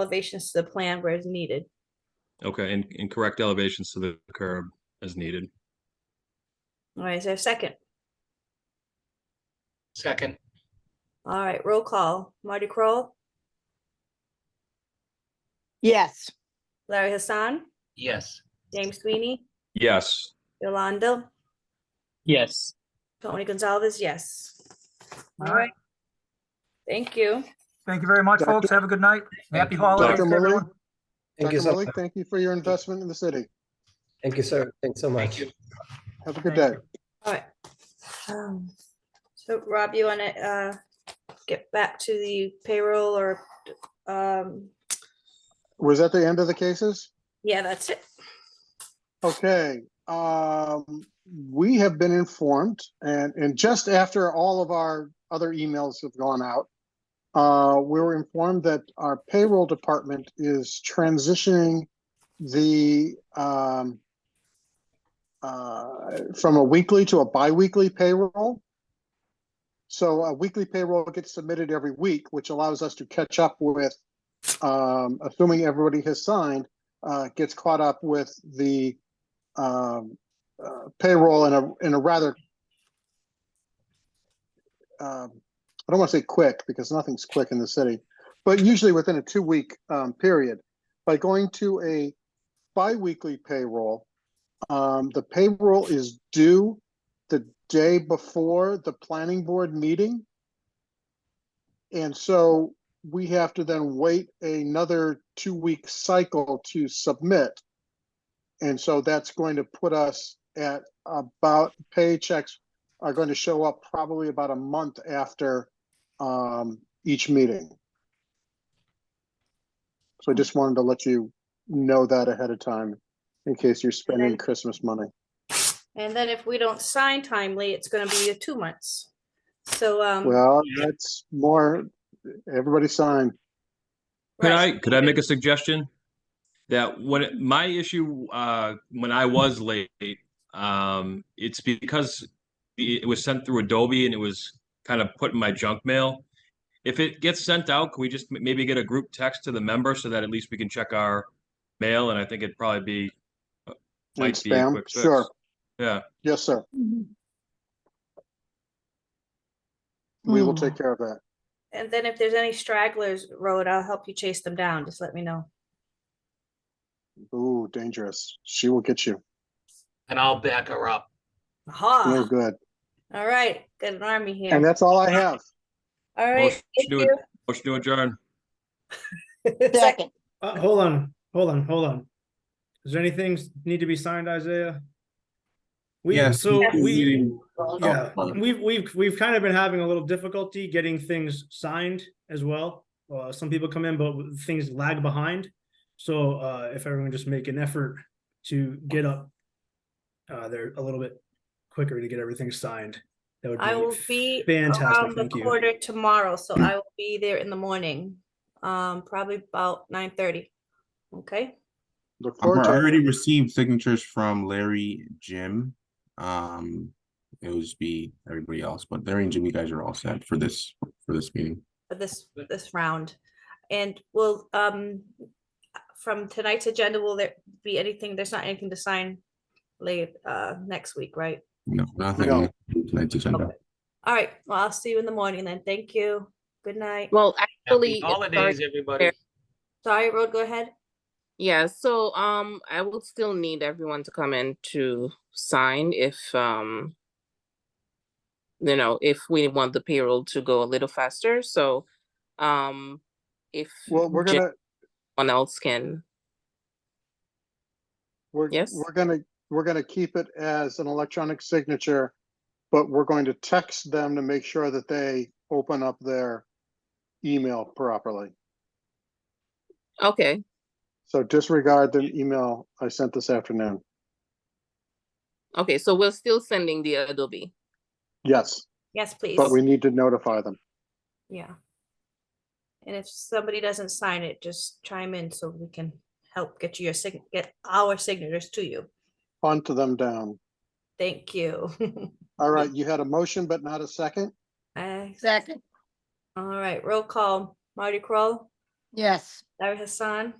elevations to the plan where it's needed. Okay, and, and correct elevations to the curb as needed. All right, is there a second? Second, All right, roll call. Marty Kroll, Yes, Larry Hassan, yes. James Sweeney, Yes, Yolanda, Yes. Tony Gonzalez, yes. All right. Thank you. Thank you very much, Doctor- folks. Have a good night. Happy you. holidays, to Dr. Murray, everyone. Thank Dr. you so Malik, thank you for your investment in the city. Thank you, sir. Thanks so Thank much. you. Have a good Thank day. All right. Um, So Rob, you want to uh get back to the payroll or, um, Was that the end of the cases? yeah, that's it. Okay, um, we have been informed and, and just after all of our other emails have gone out, uh, we were informed that our payroll department is transitioning the, um, uh, from a weekly to a bi-weekly payroll. So a weekly payroll gets submitted every week, which allows us to catch up with, um, assuming everybody has signed, uh, gets caught up with the um, uh, payroll in a in a rather um, I don't want to say quick because nothing's quick in the city, but usually within a two week um, period. By going to a biweekly payroll, um, the payroll is due the day before the planning board meeting. And so we have to then wait another two-week cycle to submit. And so that's going to put us at about, paychecks are going to show up probably about a month after um, each meeting. So I just wanted to let you know that ahead of time in case you're spending Okay. Christmas money. And then if we don't sign timely, it's going to be two months. So, um, Well, that's more, everybody sign. could right. I, could I make a suggestion? That when, it- my issue, uh, when I was late, um, it's because it it was sent through Adobe and it was kind of put in my junk mail. If it gets sent out, can we just m- maybe get a group text to the member so that at least we can check our mail? And I think it'd probably be. uh, And might be a spam, quick fix. sure. Yeah. Yes, sir. We will Hmm. take care of that. And then if there's any stragglers, Road, I'll help you chase them down. Just let me know. Ooh, dangerous. She will get you. And I'll back her up. No Aha, good. all right, got an army And here. that's all I have. All right. Motion thank to ad- motion to adjourn. you. second. Uh, hold on, hold on, hold on. Is there anything s- need to be signed, Isaiah? We, Yes, so Yes. we, yeah, Oh, we've, we've, we've kind of been having a little difficulty getting things signed as well. Uh, some people come in, but things lag behind. So, uh, if everyone just make an effort to get up, uh, they're a little bit quicker to get everything signed. That would I will be um, Fantastic, around the thank you. quarter tomorrow, so I will be there in the morning, um, probably about nine thirty. Okay, Look Uh-huh, I forward to it. already received signatures from Larry, Jim. Um, it would just be everybody else, but Larry and Jim, you guys are all set for this, for this meeting. for this, this round. And will, um, from tonight's agenda, will there be anything, there's not anything to sign late, uh, next week, right? No, nothing. No. Tonight's agenda. All right, well, I'll see you in the morning then. Thank you. Good night. Well, Happy actually, sorry, holidays, everybody. Sorry, Road, go ahead. yeah, so, um, I will still need everyone to come in to sign if, um, you know, if we want the payroll to go a little faster, so, um, if Well, we're Jen- gonna, one else can, we're, Yes? we're gonna, we're gonna keep it as an electronic signature, but we're going to text them to make sure that they open up their email properly. okay, So disregard the email I sent this afternoon. okay, so we're still sending the Adobe. Yes, Yes, please. but we need to notify them. Yeah. And if somebody doesn't sign it, just chime in so we can help get you your sign, get our signatures to you. Onto them down. Thank you. All right, you had a motion, but not a second? I- Second, All right, roll call. Marty Kroll, yes. Larry Hassan.